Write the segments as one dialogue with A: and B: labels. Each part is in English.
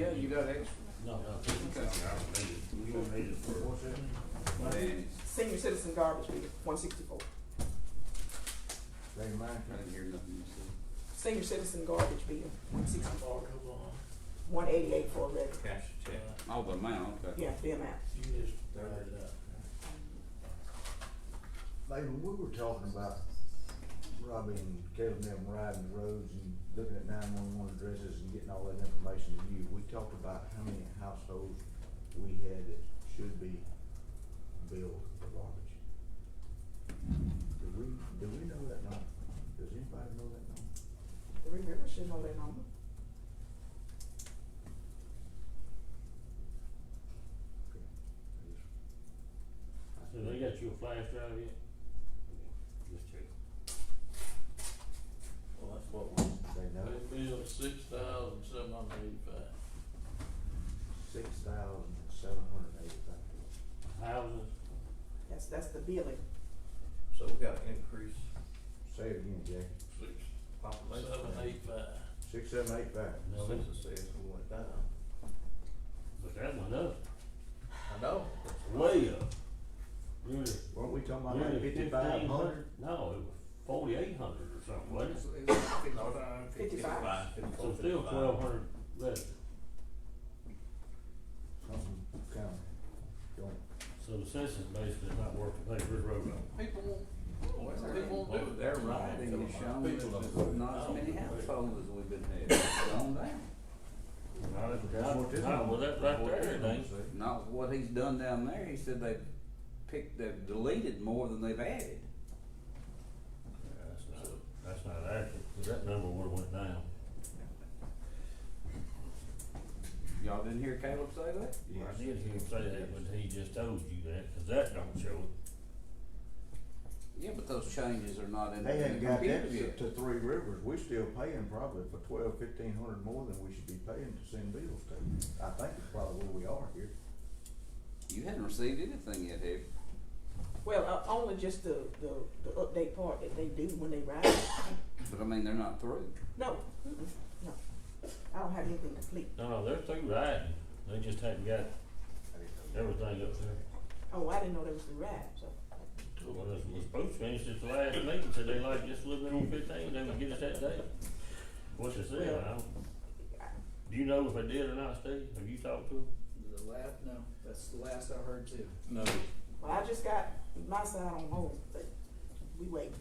A: got extra?
B: No, no.
A: Okay.
C: We don't need it for.
A: Ladies,
D: Senior citizen garbage bill, one sixty-four.
E: They mind
A: I didn't hear nothing you said.
D: Senior citizen garbage bill, one sixty-four. One eighty-eight for a regular.
A: Cash a check. Oh, the amount, okay.
D: Yeah, the amount.
B: You just
E: Baby, we were talking about Robbie and Caleb and them riding the roads and looking at nine one one addresses and getting all that information to you. We talked about how many households we had that should be billed for garbage. Do we, do we know that number? Does anybody know that number?
D: The Red River should know that number.
E: Okay. I just- I
B: So they got you a flash drive yet?
C: Just check. Well, that's what we.
E: They know
F: That
E: it,
F: bill six thousand seven hundred eighty-five.
E: six thousand seven hundred eighty-five.
B: Houses,
D: That's, that's the billing.
C: So we gotta increase
E: Say it again, Jackie.
F: Six,
C: population.
F: seven, eight, five.
E: Six, seven, eight, five.
B: no, that's,
C: Census says we went down.
B: but that went up,
F: I know.
B: way up. Really,
E: Weren't we talking about
B: really
E: like fifty-five
B: fifteen
E: hundred?
B: hundred, no, it was forty-eight hundred or something, wasn't it?
A: It's- it's like fifty-five.
D: Fifty-five.
C: Fifty-four,
B: So still
C: fifty-five.
B: twelve hundred less,
E: Something kind of going.
B: so the census basically is not working, they just wrote on.
F: People won't,
A: They're-
F: people won't do it.
A: Oh, They're right, and it's shown that there's not as many households as we've been having, it's gone down.
B: Not at the
E: That's what this one-
B: Not with that right
E: what
B: there,
E: this
B: it
E: one
B: ain't.
E: said.
A: Not what he's done down there, he said they've picked, they've deleted more than they've added.
B: That's not, that's not accurate, 'cause that number would've went down.
A: Y'all didn't hear Caleb say that?
B: I did hear him say that, but he just told you that, cause that don't show it.
A: Yeah, but those changes are not in the
E: They
A: in
E: hadn't
A: the
E: got
A: computer
E: that to
A: yet.
E: to Three Rivers, we're still paying probably for twelve, fifteen hundred more than we should be paying to send bills to. I think it's probably where we are here.
A: You hadn't received anything yet, have you?
D: Well, uh, only just the, the, the update part that they do when they ride.
A: But I mean, they're not through.
D: No, mm-mm, no. I don't have anything complete.
B: No, no, they're through riding, they just hadn't got
E: I didn't know
B: everything up there.
D: Oh, I didn't know there was the ride, so.
B: Well, this was supposed to finish this last meeting, said they like just a little bit on fifteen, they would get us that day. What's it say, I don't, do you know if they did or not, Steve, have you talked to them?
G: The last, no, that's the last I heard too.
A: No.
D: Well, I just got my side on hold, but we wait.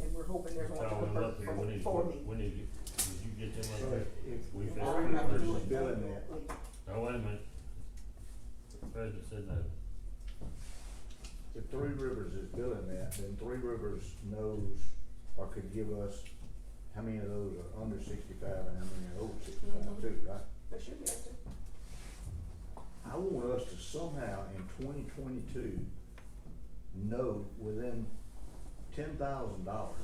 D: And we're hoping they're going to
B: Call them
D: work
B: up here, we
D: for,
B: need,
D: for me.
B: we need, to get- did you get
E: that.
B: them
E: So
B: like that?
E: if- if
B: We
E: if
B: fixed
D: I
E: Three
D: don't have to
E: Rivers
D: do
E: is
D: it.
E: billing that,
B: No, wait a minute, the president said no.
E: if Three Rivers is billing that, then Three Rivers knows or could give us how many of those are under sixty-five and how many are over
D: Mhm.
E: sixty-five too, right?
D: They should be able to.
E: I want us to somehow in twenty twenty-two know within ten thousand dollars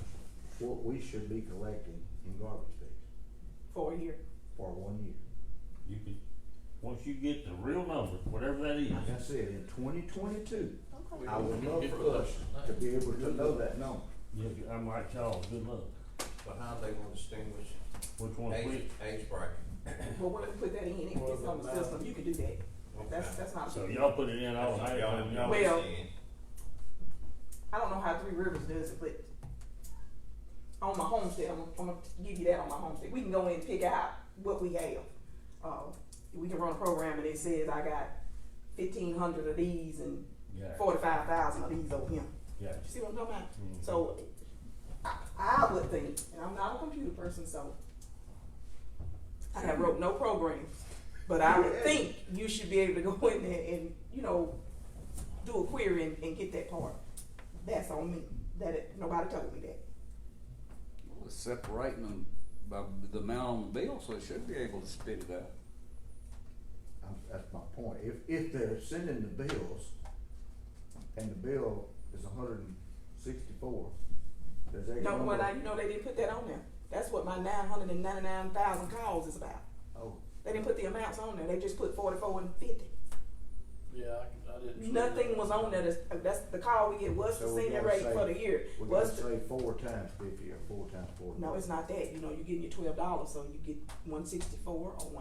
E: what we should be collecting in garbage fees
D: for a year.
E: for one year.
B: You could, once you get the real number, whatever that is,
E: Like I said, in twenty twenty-two,
D: Okay.
E: I would love for us to be able to know that number.
B: you, I'm like y'all, good luck,
C: But how they gonna distinguish
B: which one's
C: age,
B: which?
C: age bracket?
D: But when we put that in, it gets on the system, you can do that. That's, that's not.
B: So y'all put it in all
C: That's what
B: night,
C: y'all-
B: y'all,
C: y'all
D: Well-
C: understand.
D: I don't know how Three Rivers does it, but on my homestead, I'm, I'm gonna give you that on my homestead. We can go in and pick out what we have. Uh, we can run a program and it says I got fifteen hundred of these and
B: yeah,
D: forty-five thousand of these over here.
B: yeah.
D: You see what I'm talking about?
E: Mm-hmm.
B: Mhm.
D: So, I, I would think, and I'm not a computer person, so I have wrote no programs, but I would think you should be able to go in there and, you know, do a query and, and get that part. That's on me, that it, nobody told me that.
A: Well, it's separating them by the amount on the bill, so they should be able to spit it out.
E: I'm, that's my point. If, if they're sending the bills and the bill is hundred and sixty-four, does that
D: No, well, now,
E: number?
D: you know, they didn't put that on there. That's what my nine hundred and ninety-nine thousand calls is about.
E: Oh,
D: They didn't put the amounts on there, they just put forty-four and fifty.
F: Yeah, I, I didn't. see
D: Nothing
F: that.
D: was on there, that's, that's the call we get, what's the
E: So we
D: senior
E: gotta
D: rate
E: say-
D: for the year?
E: we
D: What's
E: gotta
D: the
E: say four times fifty or four times forty.
D: No, it's not that, you know, you're getting your twelve dollars, so you get one sixty-four or one